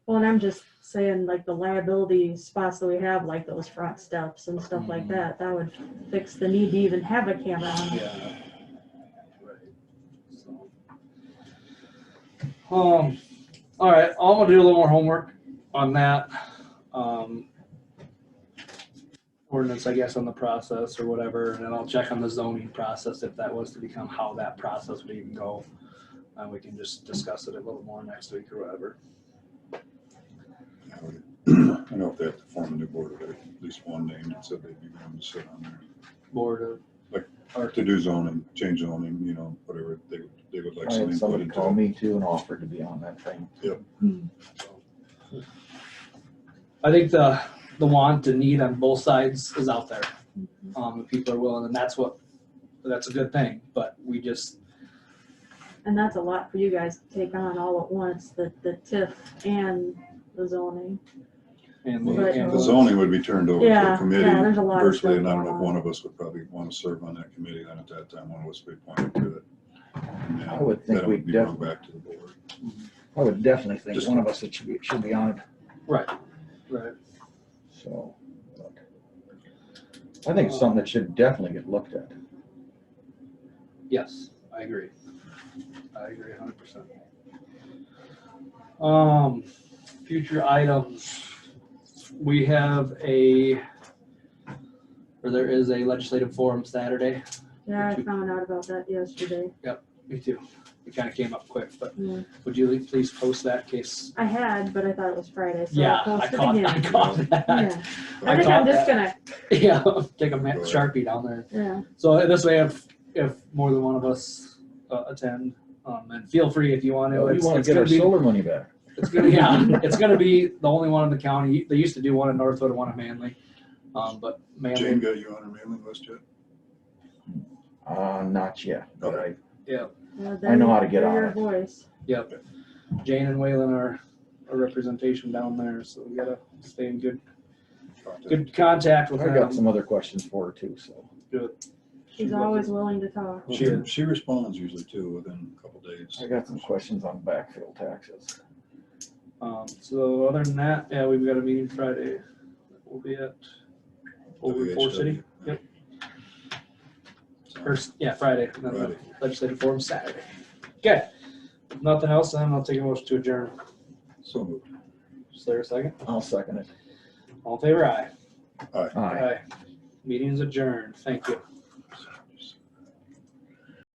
Well, and I'm just saying like the liability spots that we have, like those front steps and stuff like Mhm. that, that would fix the need to even have a camera on. it. Yeah. Um, all right, I'm gonna do a little more homework on that. Um, ordinance, I guess, on the process or whatever, and then I'll check on the zoning process if that was to become how that process would even go. And we can just discuss it a little more next week or whatever. I would- I know if they have to form a new board, but at least one name that said they'd be willing to sit on there. Board uh, of, Or to do zoning, change zoning, you know, whatever, they, they would like I some had input somebody call into. it. me too and offered to be on that thing. I think the, the want and need on both sides is out there. Um, if people are willing, and that's what, that's a good thing, but we just, And that's a lot for you guys to take on all at once, the, the TIF and the zoning. and we But- can't. The zoning would be turned over to Yeah, a yeah, there's committee a lot of virtually, stuff and I don't know going if on. one of us would probably want to serve on that committee, then at that time, one of us would be appointed to it. And I would think Then it we would be brought definitely- back to the board. I would definitely think Just- one of us should be, should be on it, Right, so. but I think it's something that should definitely get looked at. yes, I agree. I agree hundred percent. Um, future items. We have a, or there is a legislative forum Saturday. Yeah, I found out about that yesterday. Me too. It kind of came up quick, but Yeah. would you please post that case? I had, but I thought it was Friday, so Yeah, I I posted caught, I again. caught that. Yeah. I I think caught I'm just that. gonna, Yeah, take a ma- Sharpie down there. yeah, So this way, if, if more than one of us uh, attend, um, and feel free if you want to. We It's- wanna it's get our gonna be- solar money back. It's gonna, yeah, it's gonna be the only one in the county. They used to do one in Northwood and one in Manly. Um, but Jane Manly, got you on her mailing list yet? Uh, not yet, but I, yeah. I know how to they're- get they're on uh, your it. Voice. Jane and Waylon are a representation down there, so we gotta stay in good, Talked to- good contact with I got them. some other questions for her too, so. She's always willing to talk. Well, She- She, she responds usually too, within a couple days. I got some questions on backfill taxes. Um, so other than that, yeah, we've got a meeting Friday. We'll be at over Four WHW. City, yep. So, first, yeah, Friday, and then the Friday. legislative forum Saturday. Okay, If nothing else, then I'll take a motion to adjourn. So moved. Is there a second? I'll second it. All in favor aye. Aye. Meeting's adjourned. Thank you.